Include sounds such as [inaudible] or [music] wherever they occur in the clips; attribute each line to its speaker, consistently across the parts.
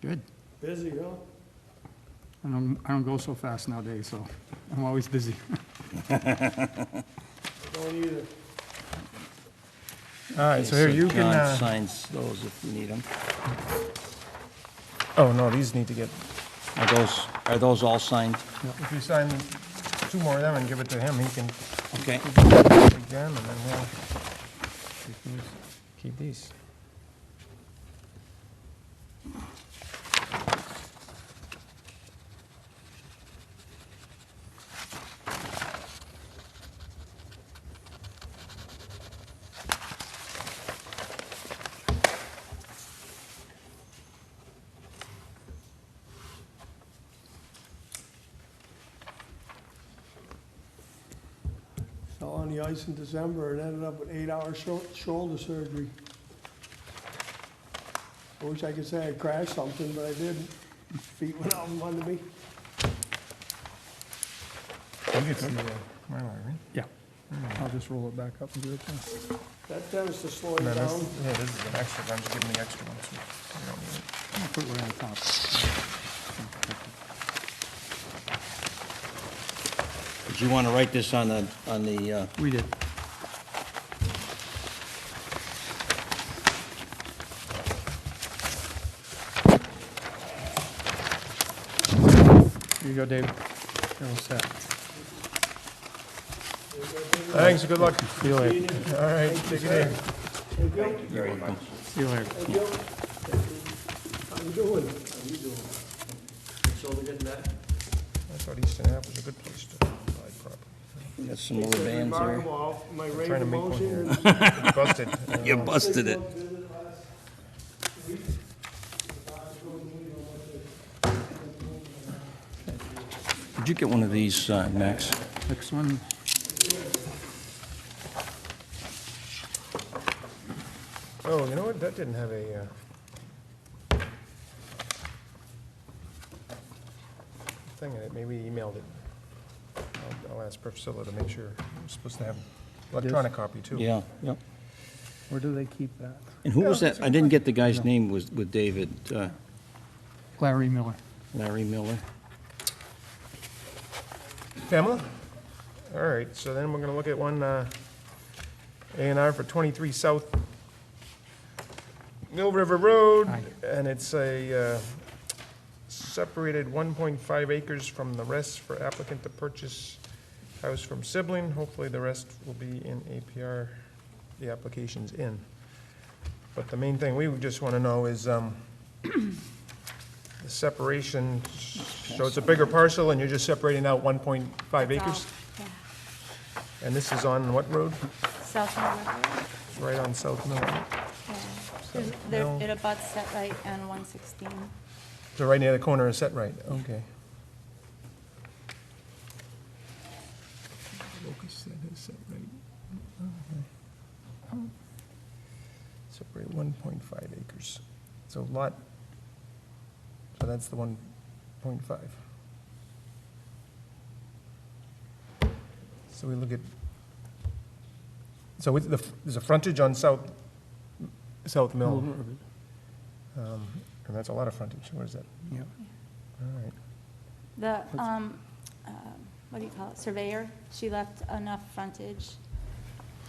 Speaker 1: Good.
Speaker 2: Busy, huh?
Speaker 1: I don't, I don't go so fast nowadays, so I'm always busy. [laughs]
Speaker 2: Don't either.
Speaker 3: All right, so here, you can,
Speaker 4: John
Speaker 3: uh,
Speaker 4: signs those if you need them.
Speaker 3: oh, no, these need to get,
Speaker 4: Are those, are those all signed?
Speaker 3: if you sign two more of them and give it to him, he can
Speaker 4: Okay.
Speaker 3: take them, and then we'll keep these- keep these.
Speaker 2: Fell uh, on the ice in December and ended up with eight-hour sho- shoulder surgery. I wish I could say I crashed something, but I didn't. Feet went out from under me.
Speaker 3: You get to see the Mylar, right?
Speaker 1: Yeah. I'll just roll it back up and do it then.
Speaker 2: That tends to slow
Speaker 3: No,
Speaker 2: you
Speaker 3: this-
Speaker 2: down.
Speaker 3: Yeah, this is an extra, I'm just giving the extra one, so we don't need it.
Speaker 1: I'll put it right on top.
Speaker 4: Did you want to write this on the, on the, uh,
Speaker 1: We did.
Speaker 3: Here you go, Dave. You're all set. Thanks, good luck. See you later. All right, take it easy.
Speaker 2: Thank you.
Speaker 4: very much.
Speaker 1: See you later.
Speaker 2: Thank you. How you doing? How you doing? Shoulder getting back?
Speaker 3: I thought Easton Ave was a good place to buy property.
Speaker 4: Got some more bands
Speaker 2: Mark
Speaker 4: there.
Speaker 2: 'em off. My
Speaker 3: Trying
Speaker 2: range
Speaker 3: to
Speaker 2: of
Speaker 3: make one
Speaker 2: motion
Speaker 3: here.
Speaker 2: is
Speaker 3: Busted. I don't
Speaker 4: You
Speaker 3: know.
Speaker 4: busted it. Did you get one of these, uh, Max?
Speaker 1: Next one.
Speaker 3: Oh, you know what, that didn't have a, uh... Thing in it, maybe he emailed it. I'll, I'll ask Priscilla to make sure, we're supposed to have electronic copy too.
Speaker 4: Yeah, yep.
Speaker 1: Where do they keep that?
Speaker 4: And who was that? I didn't get the guy's name was with David, uh,
Speaker 1: Larry Miller.
Speaker 4: Larry Miller.
Speaker 3: Pamela? All right, so then we're gonna look at one, uh, A and R for twenty-three South Mill River Road,
Speaker 1: Aye.
Speaker 3: and it's a, uh, separated one point five acres from the rest for applicant to purchase house from sibling. Hopefully the rest will be in APR, the application's in. But the main thing we would just wanna know is, um, the separation, so it's a bigger parcel and you're just separating out one point five acres?
Speaker 5: Yeah.
Speaker 3: And this is on what road?
Speaker 5: South Mill River.
Speaker 3: Right on South Mill. Road.
Speaker 5: yeah.
Speaker 3: South
Speaker 5: There's- There,
Speaker 3: Mill.
Speaker 5: it abuts set right on one sixteen.
Speaker 3: So right near the corner of Set Right, okay. Locust, that is Set Right. Okay. Separate one point five acres. So lot, so that's the one point five. So we look at, so it's the, there's a frontage on South, South Mill. Um, And that's a lot of frontage, what is that?
Speaker 1: Yeah.
Speaker 3: All right,
Speaker 5: The, um, um, what do you call it, surveyor, she left enough frontage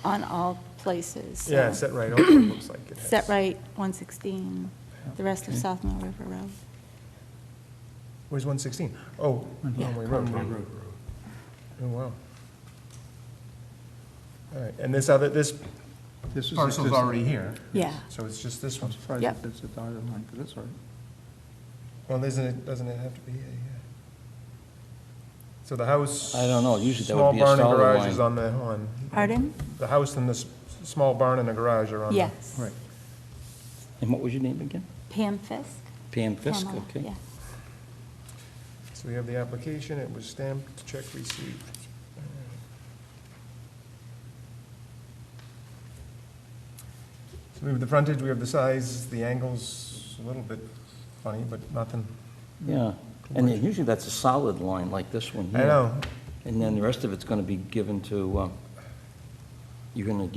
Speaker 5: on all places. so
Speaker 3: yeah, set right, also looks like it has.
Speaker 5: Set right, one sixteen, the rest of South Mill River Road.
Speaker 3: Where's one sixteen? Oh, Conway Road. Oh, wow. All right, and this other, this
Speaker 1: This is.
Speaker 3: parcel's already here,
Speaker 5: Yeah,
Speaker 3: so it's just this one.
Speaker 1: Surprised
Speaker 5: Yep.
Speaker 1: that it's a dotted line, but that's all right.
Speaker 3: Well, isn't it, doesn't it have to be, yeah, yeah. So the house.
Speaker 4: I don't know, usually that would
Speaker 3: small
Speaker 4: be a
Speaker 3: barn and
Speaker 4: solid
Speaker 3: garage
Speaker 4: line.
Speaker 3: is on the, on,
Speaker 5: pardon?
Speaker 3: the house and this small barn and the garage are on. the-
Speaker 5: Yes.
Speaker 1: Right.
Speaker 4: And what was your name again?
Speaker 5: Pam Fisk?
Speaker 4: Pam Fisk,
Speaker 5: Pamela,
Speaker 4: okay.
Speaker 5: Yeah.
Speaker 3: So we have the application, it was stamped, check received. So we have the frontage, we have the size, the angles, a little bit funny, but nothing.
Speaker 4: Yeah, and then usually that's a solid line like this one
Speaker 3: I
Speaker 4: here.
Speaker 3: know,
Speaker 4: And then the rest of it's gonna be given to, uh, you're gonna